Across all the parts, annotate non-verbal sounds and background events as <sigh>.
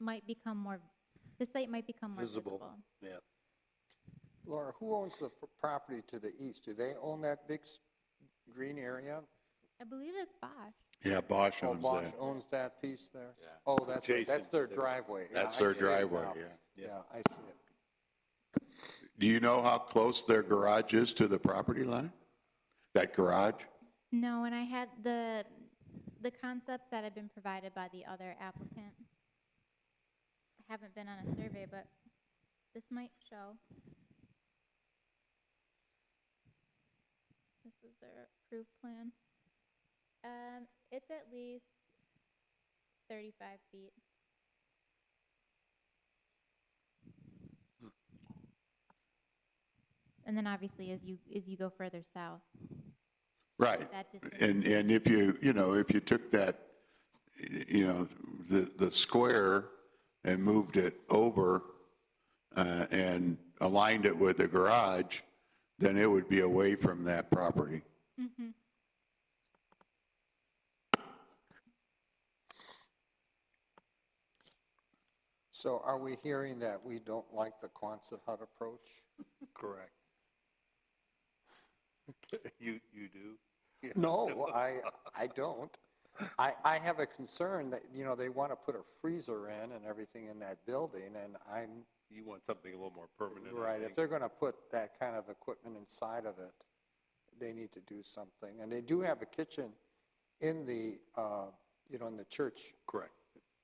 might become more, the site might become more Visible. visible. Yeah. Laura, who owns the p- property to the east? Do they own that big s- green area? I believe that's Bosch. Yeah, Bosch Oh, owns Bosch that. owns that piece there? Yeah. Oh, that's, right. that's their driveway. Yeah, That's I their see it driveway, now. yeah. Yeah, I see it. Do you know how close their garage is to the property line? That garage? No, and I had the, the concepts that have been provided by the other applicant. I haven't been on a survey, but this might show. This was their approved plan. Um, it's at least thirty-five feet. And then obviously, as you, as you go further south, Right. that distance. <clears throat> And, and if you, you know, if you took that, y- you know, the, the square and moved it over uh, and aligned it with the garage, then it would be away from that property. So are we hearing that we don't like the Quonset hut approach? Correct. <laughs> You, you do? No, I, I don't. I, I have a concern that, you know, they want to put a freezer in and everything in that building, and I'm, You want something a little more permanent, I right, if think. they're going to put that kind of equipment inside of it, they need to do something. And they do have a kitchen in the, uh, you know, in the church Correct.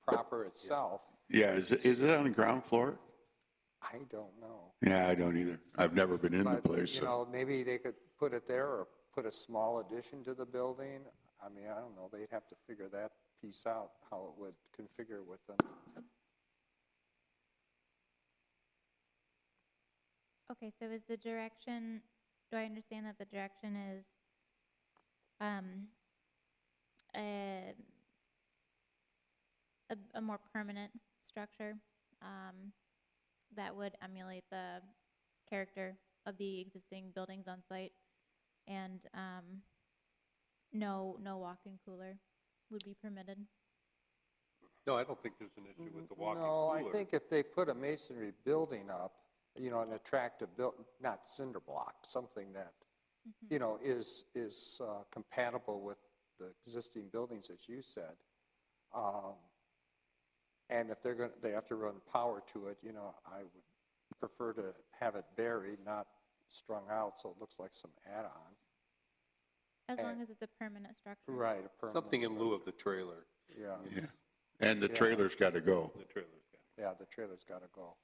proper itself. Yeah, is, it- is it on the ground floor? I don't know. Yeah, I don't either. I've never been in the But, place, you so- know, maybe they could put it there or put a small addition to the building. I mean, I don't know, they'd have to figure that piece out, how it would configure with them. Okay, so is the direction, do I understand that the direction is, um, a, a, a more permanent structure, um, that would emulate the character of the existing buildings on site? And, um, no, no walk-in cooler would be permitted? No, I don't think there's an issue with the walk-in No, I cooler. think if they put a masonry building up, you know, an attractive built, not cinder block, something that, you know, is, is uh, compatible with the existing buildings, as you said. Um, And if they're going, to they have to run power to it, you know, I would prefer to have it buried, not strung out, so it looks like some add-on. As Uh, long as it's a permanent structure? Right, a permanent. Something in lieu of structure. the trailer, Yeah. yeah. And the trailer's got to go. the trailer's got. Yeah, the trailer's got to go.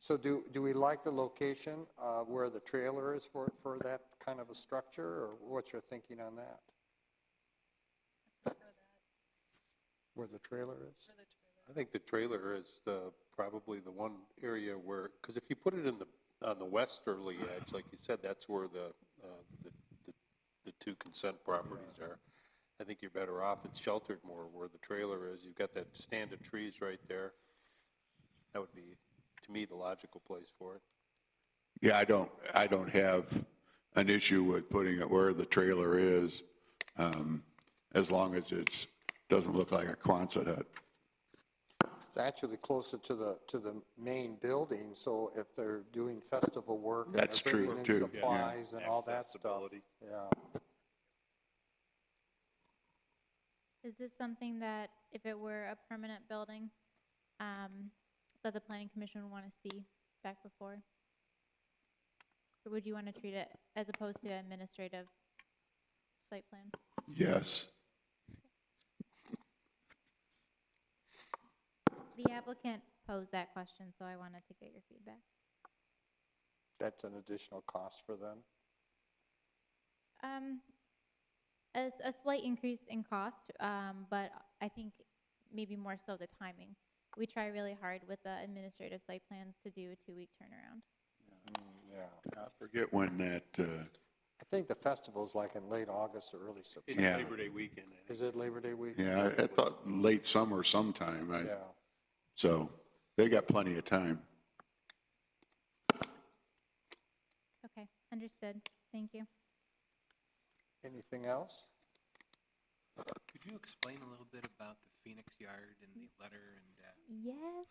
So do, do we like the location uh, where the trailer is for, for that kind of a structure, or what's your thinking on that? Where the trailer is? I think the trailer is the, probably the one area where, because if you put it in the, on the westerly edge, like you said, that's where the, uh, the, the- the two consent properties are. I think you're better off, it's sheltered more where the trailer is, you've got that stand of trees right there. That would be, to me, the logical place for it. Yeah, I don't, I don't have an issue with putting it where the trailer is, um, as long as it's, doesn't look like a Quonset hut. It's actually closer to the, to the main building, so if they're doing festival work. and they're That's true, bringing in too, yeah. Supplies and all that stuff. Accessibility. Yeah. Is this something that, if it were a permanent building, um, that the planning commission would want to see back before? Or would you want to treat it as opposed to administrative site plan? Yes. The applicant posed that question, so I wanted to get your feedback. That's an additional cost for them. Um, a, s- a slight increase in cost, um, but I think maybe more so the timing. We try really hard with the administrative site plans to do a two-week turnaround. Mm, Yeah. I forget when that, uh, I think the festival's like in late August or early It's September. Yeah. Labor Day weekend, I think. Is it Labor Day week? yeah, I I thought late summer sometime, I, Yeah. so they got plenty of time. Okay, understood. Thank you. Anything else? Could you explain a little bit about the Phoenix Yard and the letter and, uh, Yes.